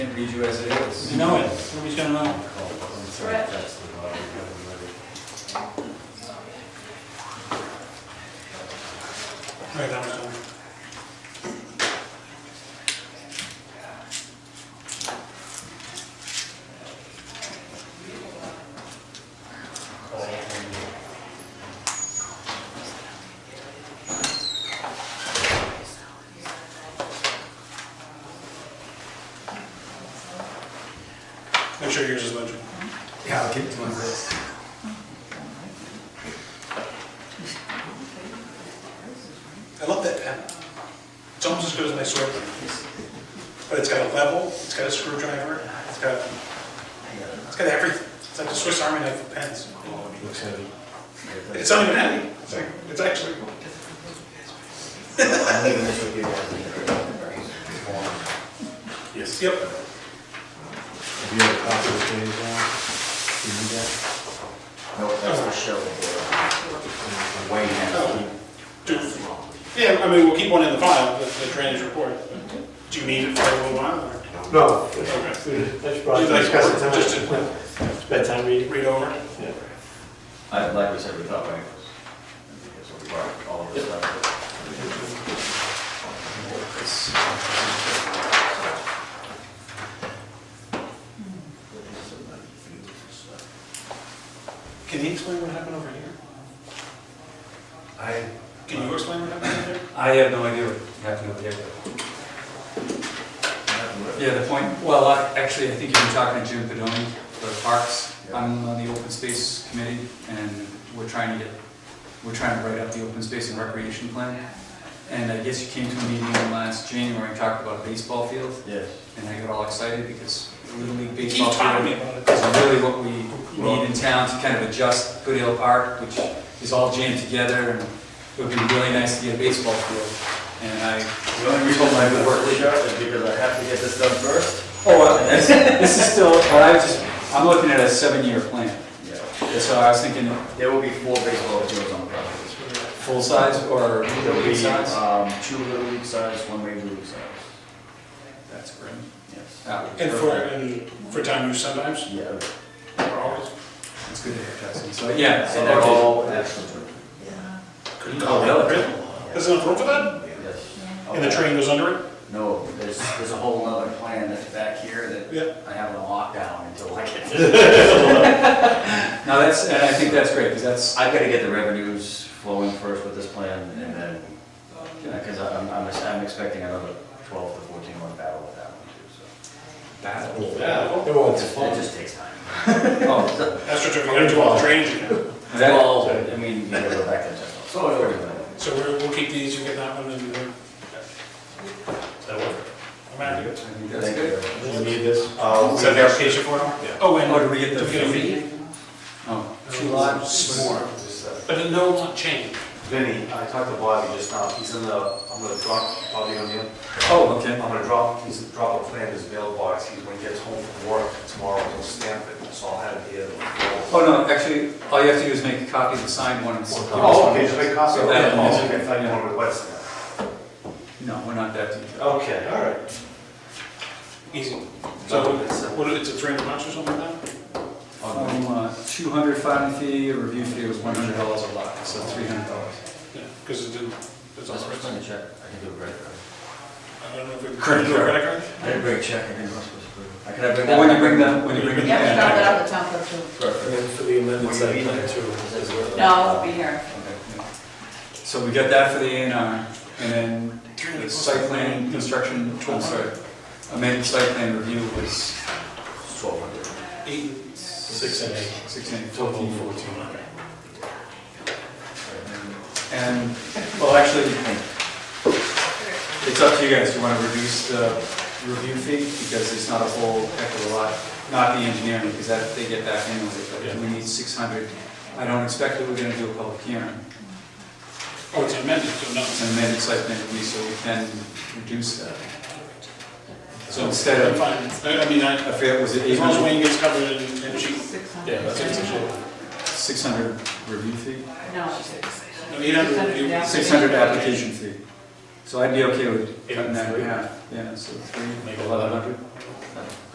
can read you as it is. No, nobody's gonna know. Right, that was done. Make sure yours is legit. Yeah, I'll keep it to myself. I love that pen. It's almost as good as my sword. But it's got a level, it's got a screwdriver, it's got, it's got everything. It's like a Swiss Army knife of pens. Oh, Looks heavy. It's not even heavy. It's like, it's actually, I'm leaving this with you guys. yes, yep. If you have a copy of the page now, No, that's for show. The Way down. Do- Yeah, I mean, we'll keep one in the file, the the drainage report. but Do you need it for a little while or? No, Okay. that's Do probably you like- discussed Just it tonight. to It's bedtime reading. read over? Yeah. I, like we said, we thought, right? Because we brought all of this stuff. Can you explain what happened over here? I, Can you explain what happened over there? I have no idea what happened over there. Yeah, the point, well, I- actually, I think you've been talking to Jim Pedoni for Parks. I'm on the Open Space Committee, and we're trying to get, we're trying to write up the Open Space and Recreation Plan. And I guess you came to a meeting last January and talked about a baseball field, Yes. and I got all excited because Little League Keep baseball talking field about it. is really what we need in town to kind of adjust Goodale Park, which is all jammed together, and it would be really nice to get a baseball field. And I The only reason I would work with you is because I have to get this done first. Oh, uh, this, this is still, but I just, I'm looking at a seven-year plan. Yeah. And So I was thinking, There will be four baseball fields on the property. full size or There'll little be, size? um, two little league size, one major league size. That's great. Yes. That would be And for, perfect. and for time use sometimes, Yeah. or always? It's good to have Justin, so, yeah. And so that they're would- all national tournament. Couldn't Oh, call it. really? Really? There's enough room for that? Yes. And the train goes under it? No, there's, there's a whole other plan that's back here that Yeah. I have on lockdown until I get this. No, that's, and I think that's great, because that's, I've got to get the revenues flowing first with this plan, and then, because I'm, I'm, I'm expecting another twelve to fourteen month battle with that one too, bad. Yeah. It won't so. It just takes time. Oh, That's what you're gonna do all the drainage again. that, Well, I mean, you gotta go back to the general. So, it's already been- So we're, we'll keep these, you get that one and then. That work? I'm happy. I think that's Thank good. you. You need this? Uh, Is that the application form? Oh, and. Oh, did we get the Do we get a fee? Oh, Two lots. More. But no lot change. Vinny, I talked to Bobby just now, he's in the, I'm gonna drop Bobby on you. oh, okay. I'm gonna drop, he's drop a plan in his mailbox, he's, when he gets home from work tomorrow, he'll stamp it, so I'll have it here. Oh, no, actually, all you have to do is make a copy of the signed one and. s- Oh, okay, just make a copy of Yeah. that, oh, okay, I thought you wanted to wet stamp. No, we're not that Uh, detailed. Okay, all right. Easy. So, So, what, it's a three hundred bucks or something like that? Um, uh, 200 filing fee, a review fee was $100 a lot, so $300. Yeah, because it didn't, it's all That's what I'm written. gonna check, I can do a credit card. I don't know if we. Credit do a card. Credit card? I didn't bring a check, I didn't, I was supposed to bring. I Can I bring that? Well, when you bring that, when you bring it Yeah, we dropped it in. off the top of Perfect. And for the amended Will you site be plan there? too. as well. the, no, it'll be here. So we got that for the A and R, and then the site plan construction, I'm sorry, amended site plan review was It's twelve hundred. Eight, Six and eight. 16, 14, 14. And, well, actually, it's up to you guys, do you want to reduce the review fee? Because it's not a whole heck of a lot, not the engineering, because that, they get back in with it, but we need 600. I don't expect that we're going to do a public hearing, oh, it's amended, so no. it's an amended site plan review, so we can reduce that. So instead I'm of, fine. I I mean, I, I feel, was it as long as 800, Wayne gets covered in, in sheet. Six hundred. Yeah, that's it, it's a sheet. 600 review fee? No. No, 800 600, yeah. 600 application fee. So I'd be okay with cutting that in half. Yeah, so three, Make it eleven hundred.